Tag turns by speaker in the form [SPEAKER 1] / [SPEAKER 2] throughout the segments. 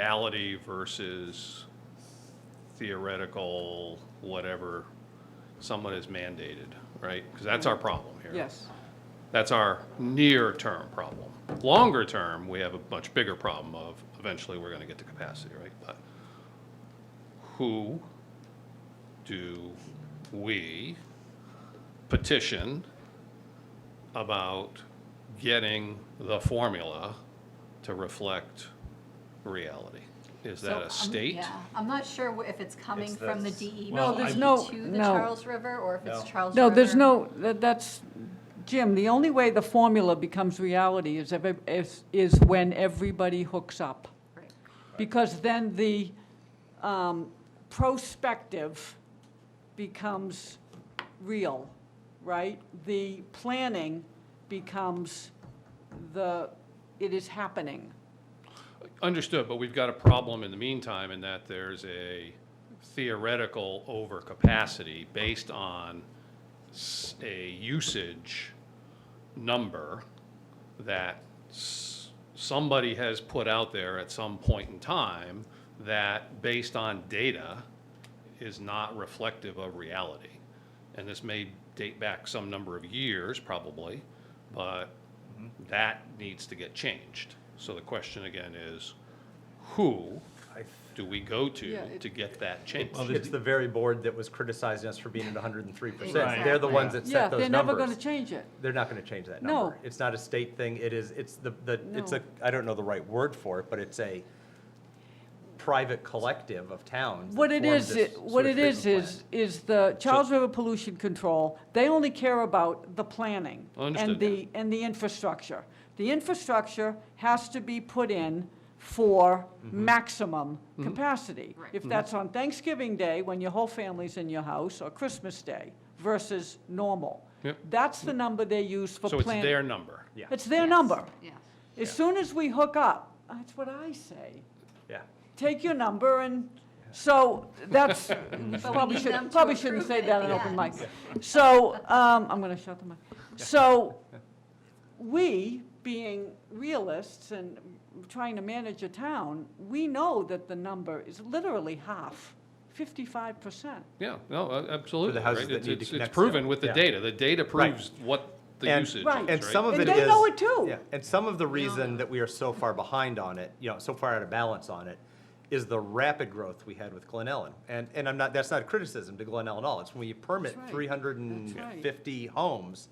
[SPEAKER 1] reality versus theoretical, whatever someone has mandated, right? Because that's our problem here.
[SPEAKER 2] Yes,
[SPEAKER 1] That's our near-term problem. Longer term, we have a much bigger problem of eventually we're gonna get to capacity, right? But who do we petition about getting the formula to reflect reality? Is that
[SPEAKER 3] So,
[SPEAKER 1] a
[SPEAKER 3] um,
[SPEAKER 1] state?
[SPEAKER 3] Yeah, I'm not sure wh- if it's coming
[SPEAKER 4] It's
[SPEAKER 3] from the
[SPEAKER 4] this-
[SPEAKER 3] DEP
[SPEAKER 4] No, there's
[SPEAKER 2] no-
[SPEAKER 3] to the
[SPEAKER 2] no.
[SPEAKER 3] Charles River, or if it's
[SPEAKER 4] No.
[SPEAKER 3] Charles River.
[SPEAKER 2] no, there's no, that- that's, Jim, the only way the formula becomes reality is, every- is, is when everybody hooks up.
[SPEAKER 3] Right.
[SPEAKER 2] Because then the um, prospective becomes real, right? The planning becomes the, it is happening.
[SPEAKER 1] Understood, but we've got a problem in the meantime in that there's a theoretical overcapacity based on s- a usage number that s- somebody has put out there at some point in time that, based on data, is not reflective of reality. And this may date back some number of years, probably, but that needs to get changed. So the question again is, who do we go
[SPEAKER 2] Yeah,
[SPEAKER 1] to
[SPEAKER 2] it-
[SPEAKER 1] to get that changed?
[SPEAKER 5] Well,
[SPEAKER 4] It's the very board that was criticizing us for being at hundred and three percent.
[SPEAKER 3] Right.
[SPEAKER 5] They're the ones that
[SPEAKER 2] Yeah,
[SPEAKER 5] set
[SPEAKER 2] they're
[SPEAKER 5] those
[SPEAKER 2] never going to
[SPEAKER 5] numbers.
[SPEAKER 2] change it.
[SPEAKER 5] They're not gonna change that
[SPEAKER 2] No.
[SPEAKER 5] number. It's not a state thing, it is, it's the, the, it's
[SPEAKER 2] No.
[SPEAKER 5] a, I don't know the right word for it, but it's a private collective of towns. that
[SPEAKER 2] What it
[SPEAKER 5] formed
[SPEAKER 2] is,
[SPEAKER 5] this
[SPEAKER 2] it- what
[SPEAKER 5] sewage
[SPEAKER 2] it is,
[SPEAKER 5] treatment
[SPEAKER 2] is, is the Charles River Pollution Control, they only care about the planning.
[SPEAKER 1] Understood.
[SPEAKER 2] And the, and the infrastructure. The infrastructure has to be put in for
[SPEAKER 1] Mm-hmm.
[SPEAKER 2] maximum capacity.
[SPEAKER 3] Right.
[SPEAKER 2] If that's on Thanksgiving Day, when your whole family's in your house, or Christmas Day versus normal.
[SPEAKER 1] Yep.
[SPEAKER 2] That's the number they use for
[SPEAKER 1] So
[SPEAKER 2] planning.
[SPEAKER 1] it's their number.
[SPEAKER 5] Yeah.
[SPEAKER 2] It's their
[SPEAKER 3] Yes,
[SPEAKER 2] number.
[SPEAKER 3] Yeah.
[SPEAKER 2] As soon as we hook up, that's what I say
[SPEAKER 5] plant.
[SPEAKER 2] take your number and, so that's, probably
[SPEAKER 3] need them
[SPEAKER 2] shouldn't,
[SPEAKER 3] to
[SPEAKER 2] probably shouldn't say
[SPEAKER 3] approve it,
[SPEAKER 2] that in open
[SPEAKER 3] yeah.
[SPEAKER 2] mic. So, um, I'm gonna shut the mic. So, we, being realists and trying to manage a town, we know that the number is literally half, fifty-five percent.
[SPEAKER 1] Yeah, no, uh, absolutely.
[SPEAKER 5] houses
[SPEAKER 1] right.
[SPEAKER 5] that
[SPEAKER 1] It's-
[SPEAKER 5] need to
[SPEAKER 1] it's-
[SPEAKER 5] connect
[SPEAKER 1] It's
[SPEAKER 5] still.
[SPEAKER 1] proven with the
[SPEAKER 5] Yeah.
[SPEAKER 1] data. The data
[SPEAKER 5] Right.
[SPEAKER 1] proves what the
[SPEAKER 5] And-
[SPEAKER 1] usage is,
[SPEAKER 2] Right.
[SPEAKER 1] right?
[SPEAKER 5] And some of
[SPEAKER 2] And
[SPEAKER 5] it is.
[SPEAKER 2] they know it too.
[SPEAKER 5] Yeah, and some of the reason that we are so far behind on it, you know, so far out of balance on it, is the rapid growth we had with Glen Ellen. And, and I'm not, that's not a criticism to Glen Ellen at all, it's when you permit
[SPEAKER 2] That's right.
[SPEAKER 5] three hundred and fifty homes,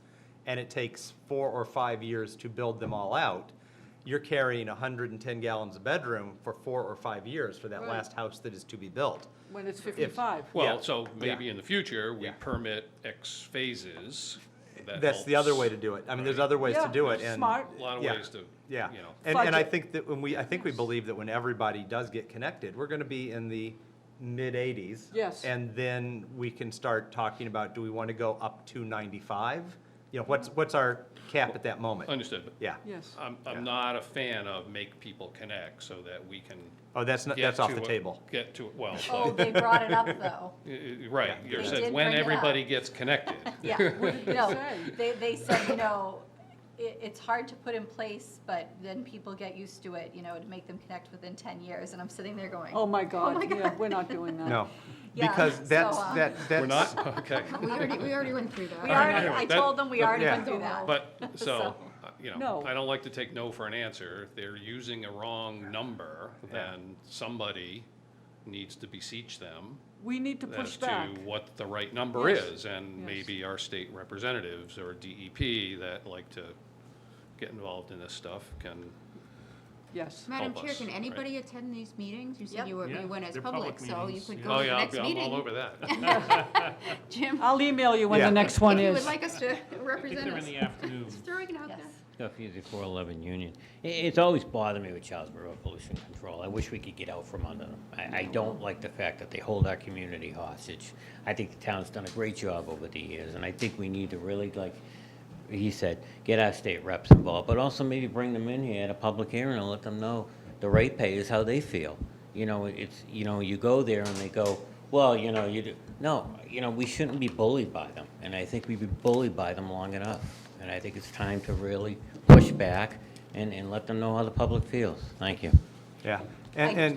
[SPEAKER 5] and it takes four or five years to build them all out, you're carrying hundred and ten gallons a bedroom for four or five years for that
[SPEAKER 2] Right.
[SPEAKER 5] last house that is to be built.
[SPEAKER 2] When it's fifty-five.
[SPEAKER 1] Well,
[SPEAKER 5] Yeah.
[SPEAKER 1] so maybe in the future, we
[SPEAKER 5] Yeah.
[SPEAKER 1] permit X phases. That
[SPEAKER 5] That's the other way to
[SPEAKER 1] helps.
[SPEAKER 5] do it, I mean, there's other ways to
[SPEAKER 2] Yeah,
[SPEAKER 5] do it, and.
[SPEAKER 2] Smart,
[SPEAKER 1] A lot of
[SPEAKER 5] Yeah.
[SPEAKER 1] ways to, you
[SPEAKER 5] Yeah,
[SPEAKER 1] know.
[SPEAKER 5] and, and I
[SPEAKER 2] Budget.
[SPEAKER 5] think that when we, I think we believe that when everybody does get connected, we're gonna be in the mid-eighties.
[SPEAKER 2] Yes.
[SPEAKER 5] And then we can start talking about, do we wanna go up to ninety-five? You know, what's, what's our cap at that moment?
[SPEAKER 1] Understood. but
[SPEAKER 5] Yeah.
[SPEAKER 2] yes.
[SPEAKER 1] I'm,
[SPEAKER 5] Yeah.
[SPEAKER 1] I'm not a fan of make people connect so that we can.
[SPEAKER 5] Oh, that's not,
[SPEAKER 1] get
[SPEAKER 5] that's off
[SPEAKER 1] to
[SPEAKER 5] the
[SPEAKER 1] a-
[SPEAKER 5] table.
[SPEAKER 1] Get to, well,
[SPEAKER 3] Oh,
[SPEAKER 1] but,
[SPEAKER 3] they brought it up, though.
[SPEAKER 1] y- y- right,
[SPEAKER 5] Yeah.
[SPEAKER 1] you
[SPEAKER 3] They
[SPEAKER 1] said
[SPEAKER 3] did
[SPEAKER 1] when
[SPEAKER 3] bring it up.
[SPEAKER 1] everybody gets connected.
[SPEAKER 3] Yeah.
[SPEAKER 2] did they
[SPEAKER 3] No,
[SPEAKER 2] say?
[SPEAKER 3] they, they said, you know, it, it's hard to put in place, but then people get used to it, you know, to make them connect within 10 years. And I'm sitting there going,
[SPEAKER 2] Oh, my
[SPEAKER 3] my
[SPEAKER 2] God, yeah,
[SPEAKER 3] God.
[SPEAKER 2] we're not doing that.
[SPEAKER 5] No,
[SPEAKER 3] Yeah,
[SPEAKER 5] because
[SPEAKER 3] so,
[SPEAKER 5] that's,
[SPEAKER 3] um,
[SPEAKER 5] that, that's.
[SPEAKER 1] We're not, okay.
[SPEAKER 6] We already, we already went through that.
[SPEAKER 3] we already,
[SPEAKER 1] anyway,
[SPEAKER 3] I
[SPEAKER 1] that-
[SPEAKER 3] told them we already
[SPEAKER 5] yeah.
[SPEAKER 3] went through that.
[SPEAKER 1] But, so,
[SPEAKER 3] So-
[SPEAKER 1] uh, you know,
[SPEAKER 2] No.
[SPEAKER 1] I don't like to take no for an answer. If they're using a wrong number, then somebody needs to beseech them
[SPEAKER 2] We need to push
[SPEAKER 1] as
[SPEAKER 2] back.
[SPEAKER 1] to what the right number
[SPEAKER 2] Yes.
[SPEAKER 1] is, and
[SPEAKER 2] Yes.
[SPEAKER 1] maybe our state representatives or DEP that like to get involved in this stuff can,
[SPEAKER 2] Yes.
[SPEAKER 6] Madam
[SPEAKER 1] help
[SPEAKER 6] Chair,
[SPEAKER 1] us,
[SPEAKER 6] can
[SPEAKER 1] right.
[SPEAKER 6] anybody attend these meetings? You
[SPEAKER 3] Yep.
[SPEAKER 6] said you were,
[SPEAKER 4] Yeah,
[SPEAKER 6] you went as
[SPEAKER 4] they're
[SPEAKER 6] public,
[SPEAKER 4] public
[SPEAKER 6] so you
[SPEAKER 4] meetings,
[SPEAKER 6] could
[SPEAKER 4] yeah.
[SPEAKER 6] go
[SPEAKER 1] oh
[SPEAKER 6] to the
[SPEAKER 1] yeah, I'll
[SPEAKER 6] next
[SPEAKER 1] be- I'm all
[SPEAKER 6] meeting.
[SPEAKER 1] over that.
[SPEAKER 6] Jim,
[SPEAKER 2] I'll email you when
[SPEAKER 5] Yeah.
[SPEAKER 2] the next one
[SPEAKER 6] if you
[SPEAKER 2] is.
[SPEAKER 6] would like us to
[SPEAKER 4] I think
[SPEAKER 6] represent
[SPEAKER 4] they're
[SPEAKER 6] us,
[SPEAKER 4] in the afternoon.
[SPEAKER 6] throwing it out
[SPEAKER 3] Yes.
[SPEAKER 6] there.
[SPEAKER 7] No, he's a 411 Union. I- It's always bothered me with Charles River Pollution Control. I wish we could get out from under them. I, I don't like the fact that they hold our community hostage. I think the town's done a great job over the years, and I think we need to really, like he said, get our state reps involved, but also maybe bring them in here at a public hearing and let them know the ratepayers how they feel. You know, it's, you know, you go there and they go, well, you know, you do, no, you know, we shouldn't be bullied by them, and I think we've been bullied by them long enough. And I think it's time to really push back and, and let them know how the public feels. Thank you.
[SPEAKER 5] Yeah, And,
[SPEAKER 3] I-
[SPEAKER 5] and